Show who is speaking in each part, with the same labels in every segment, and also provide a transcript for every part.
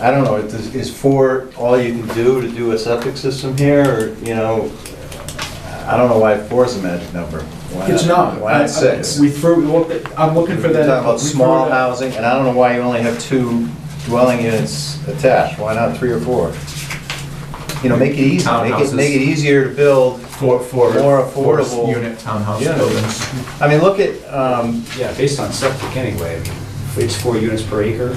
Speaker 1: I don't know, is, is four all you can do to do a septic system here, or, you know, I don't know why four's a magic number. Why
Speaker 2: It's not.
Speaker 1: Why not six?
Speaker 2: We threw, we looked at- I'm looking for
Speaker 1: We're
Speaker 2: that.
Speaker 1: talking
Speaker 2: we
Speaker 1: about
Speaker 2: threw
Speaker 1: small
Speaker 2: that-
Speaker 1: housing, and I don't know why you only have two dwelling units attached, why not three or four? You know, make it easy, make it,
Speaker 3: Townhouses.
Speaker 1: make it easier to build.
Speaker 3: For, for.
Speaker 1: More
Speaker 3: for
Speaker 1: affordable
Speaker 3: Unit townhouse
Speaker 1: units.
Speaker 3: buildings.
Speaker 1: I mean, look at, um,
Speaker 4: Yeah, based on septic anyway, I mean, if it's four units per acre,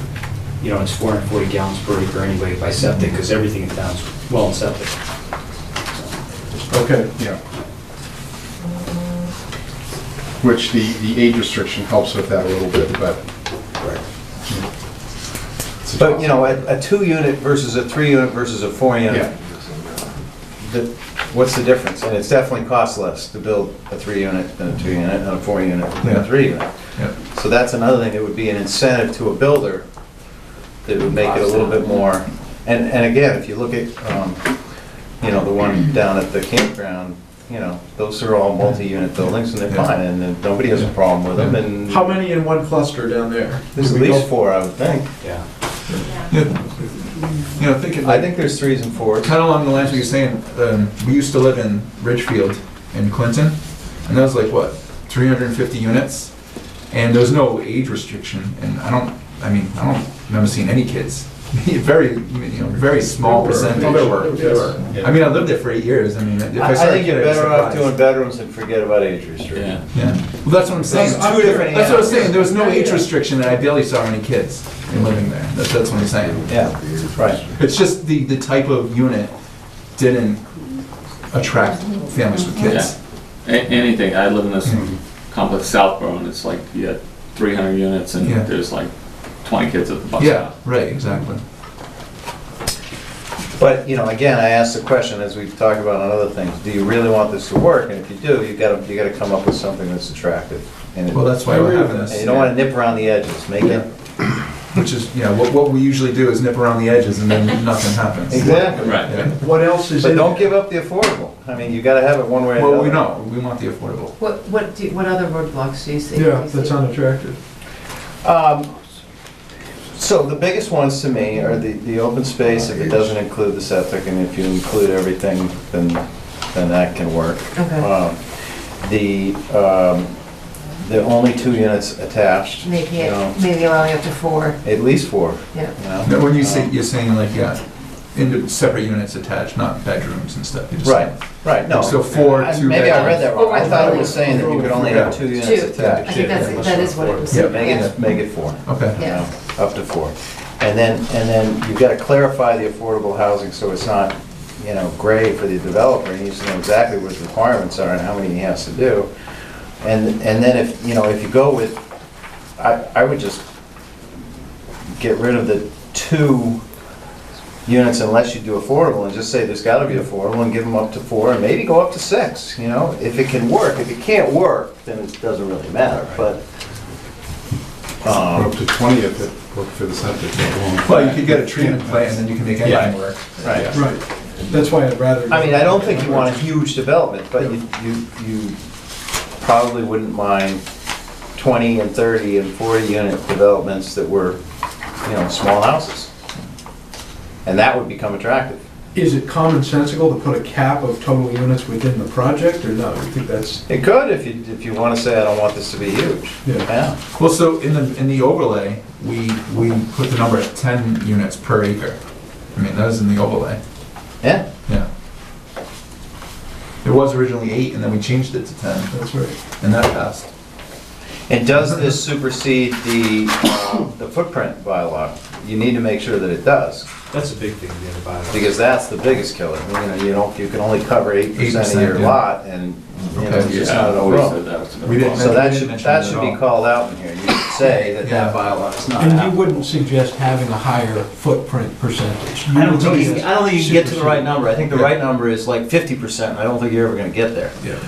Speaker 4: you know, it's 440 gallons per acre anyway by septic, because everything in town's well and septic.
Speaker 2: Okay.
Speaker 5: Yeah. Which the, the age restriction helps with that a little bit, but. It's a
Speaker 1: but, you
Speaker 5: toss-up.
Speaker 1: know, a, a two-unit versus a three-unit versus a four-unit,
Speaker 5: Yeah,
Speaker 1: the- what's the difference? And it's definitely cost less to build a three-unit than a two-unit, than a four-unit, than a
Speaker 3: Yeah.
Speaker 1: three-unit.
Speaker 3: Yeah.
Speaker 1: So that's another thing, that would be an incentive to a builder that would make it a little bit more. And, and again, if you look at, um, you know, the one down at the campground, you know, those are all multi-unit buildings and they're
Speaker 3: Yeah.
Speaker 1: fine and then nobody has a problem with them and
Speaker 2: How many in one cluster down there?
Speaker 1: there's at
Speaker 2: Do we go-
Speaker 1: least four, I would think.
Speaker 4: Yeah.
Speaker 3: Yeah, you know, thinking.
Speaker 1: I think there's threes and fours.
Speaker 3: kind of along the lines we were saying, um, we used to live in Ridgefield in Clinton, and that was like what, 350 units, and there was no age restriction, and I don't, I mean, I don't remember seeing any kids. very, you know, very small
Speaker 5: There were.
Speaker 3: percentage.
Speaker 5: Oh, there were.
Speaker 2: There were.
Speaker 3: I mean, I lived there for eight years. I mean, if
Speaker 1: I I
Speaker 3: I started
Speaker 1: think you're
Speaker 3: getting
Speaker 1: better off
Speaker 3: surprised.
Speaker 1: doing bedrooms and forget about age restriction.
Speaker 3: Yeah, well, that's what I'm saying.
Speaker 1: Those are two different
Speaker 3: That's what I'm
Speaker 1: animals.
Speaker 3: saying. There was no age restriction, and I barely saw any kids in living there. That's, that's what I'm saying.
Speaker 1: Yeah, right.
Speaker 3: It's just the, the type of unit didn't attract families with kids.
Speaker 6: A- Anything, I live in this
Speaker 3: Mm-hmm.
Speaker 6: complex Southborough, and it's like, you had 300 units, and
Speaker 3: Yeah.
Speaker 6: there's like 20 kids at the bus
Speaker 3: Yeah,
Speaker 6: stop.
Speaker 3: right, exactly.
Speaker 1: But, you know, again, I asked the question, as we've talked about on other things, do you really want this to work? And if you do, you gotta, you gotta come up with something that's attractive. And it-
Speaker 3: Well, that's why we're having this.
Speaker 1: And you don't wanna nip around the edges, make it.
Speaker 3: Which is, you know, what, what we usually do is nip around the edges and then nothing happens.
Speaker 6: Right.
Speaker 3: Yeah.
Speaker 2: What else is
Speaker 1: But
Speaker 2: in?
Speaker 1: don't
Speaker 2: there?
Speaker 1: give up the affordable. I mean, you gotta have it one way or another.
Speaker 3: Well, we know, we want the affordable.
Speaker 7: What, what, do- what other roadblocks do you see?
Speaker 2: Yeah, that's unattractive.
Speaker 1: Um, So the biggest ones to me are the, the open space, if it doesn't include the septic, and if you include everything, then, then that can work.
Speaker 7: Okay.
Speaker 1: Um, The, um, the only two units attached, you
Speaker 7: Maybe,
Speaker 1: know,
Speaker 7: it- maybe allowing up to four,
Speaker 1: at least four,
Speaker 7: yeah.
Speaker 1: you know?
Speaker 3: Now, when you say,
Speaker 1: Um,
Speaker 3: you're saying like, yeah, into separate units attached, not bedrooms and stuff. you're just
Speaker 1: Right,
Speaker 3: saying-
Speaker 1: right, no.
Speaker 3: So four,
Speaker 1: I-
Speaker 3: two
Speaker 1: Maybe I read that wrong. I thought it was saying that you could only have two
Speaker 7: Two,
Speaker 1: units attached.
Speaker 7: I think that's, that is what it was.
Speaker 3: Yeah.
Speaker 1: Make
Speaker 7: Yeah.
Speaker 1: it, make it four.
Speaker 3: Okay.
Speaker 1: you
Speaker 7: Yeah.
Speaker 1: know, up to four. And then, and then you've got to clarify the affordable housing so it's not, you know, gray for the developer. He needs to know exactly what his requirements are and how many he has to do. And, and then if, you know, if you go with, I, I would just get rid of the two units unless you do affordable and just say there's got to be affordable and give them up to four and maybe go up to six, you know? If it can work, if it can't work, then it doesn't really matter, but. um,
Speaker 5: We're Up to 20 if it worked for the septic.
Speaker 3: Well, you could get a treatment plan and then you can make anything work.
Speaker 1: Right.
Speaker 2: Right. That's why I'd rather.
Speaker 1: I mean, I don't think you want a huge development, but you, you, you probably wouldn't mind twenty and thirty and forty unit developments that were, you know, small houses. And that would become attractive.
Speaker 2: Is it commonsensical to put a cap of total units within the project, or no? You think that's,
Speaker 1: It could if you, if you wanna say, I don't want this to be huge.
Speaker 2: Yeah.
Speaker 3: Well, so in the, in the overlay, we, we put the number at ten units per acre. I mean, that was in the overlay,
Speaker 1: Yeah,
Speaker 3: yeah. It was originally eight, and then we changed it to ten,
Speaker 2: that's right.
Speaker 3: and that passed.
Speaker 1: and does this supersede the, uh, the footprint bylaw? You need to make sure that it does,
Speaker 4: That's a big thing in the bylaw.
Speaker 1: because that's the biggest killer. You know, you don't, you can only cover eight percent
Speaker 3: 8%,
Speaker 1: of your
Speaker 3: yeah.
Speaker 1: lot, and, you know, it's
Speaker 3: Okay,
Speaker 1: just not an
Speaker 6: Yeah, we
Speaker 1: overall.
Speaker 6: said that was a bit
Speaker 3: We didn't
Speaker 6: wrong.
Speaker 1: So that
Speaker 3: didn't
Speaker 1: should,
Speaker 3: mention
Speaker 1: that
Speaker 3: it at
Speaker 1: should be
Speaker 3: all.
Speaker 1: called out in here. You should say that
Speaker 3: Yeah.
Speaker 1: that bylaw is not
Speaker 8: And you
Speaker 1: out.
Speaker 8: wouldn't suggest having a higher footprint percentage?
Speaker 1: I don't think, you- I don't think you can get to the right number. I think the right number is like fifty percent. I don't think you're ever gonna get there.
Speaker 3: Yeah.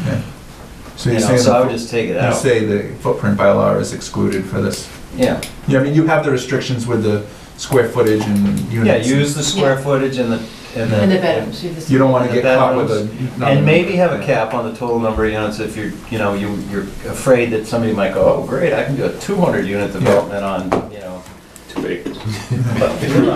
Speaker 3: So
Speaker 1: You
Speaker 3: you're
Speaker 1: know,
Speaker 3: saying,
Speaker 1: so I would
Speaker 3: the
Speaker 1: just take it
Speaker 3: fo- you
Speaker 1: out.
Speaker 3: say the footprint bylaw is excluded for this?
Speaker 1: Yeah,
Speaker 3: Yeah, I mean, you have the restrictions with the square footage and
Speaker 1: yeah,
Speaker 3: units.
Speaker 1: use the square
Speaker 7: Yeah.
Speaker 1: footage and the, and the.
Speaker 7: In the bedrooms, you just.
Speaker 3: You don't wanna
Speaker 1: the
Speaker 3: get caught with a.
Speaker 1: bedrooms.
Speaker 3: number.
Speaker 1: And maybe have a cap on the total number of units if you're, you know, you, you're afraid that somebody might go, oh, great, I can do a two hundred unit development on, you know.
Speaker 6: Too big.
Speaker 1: but-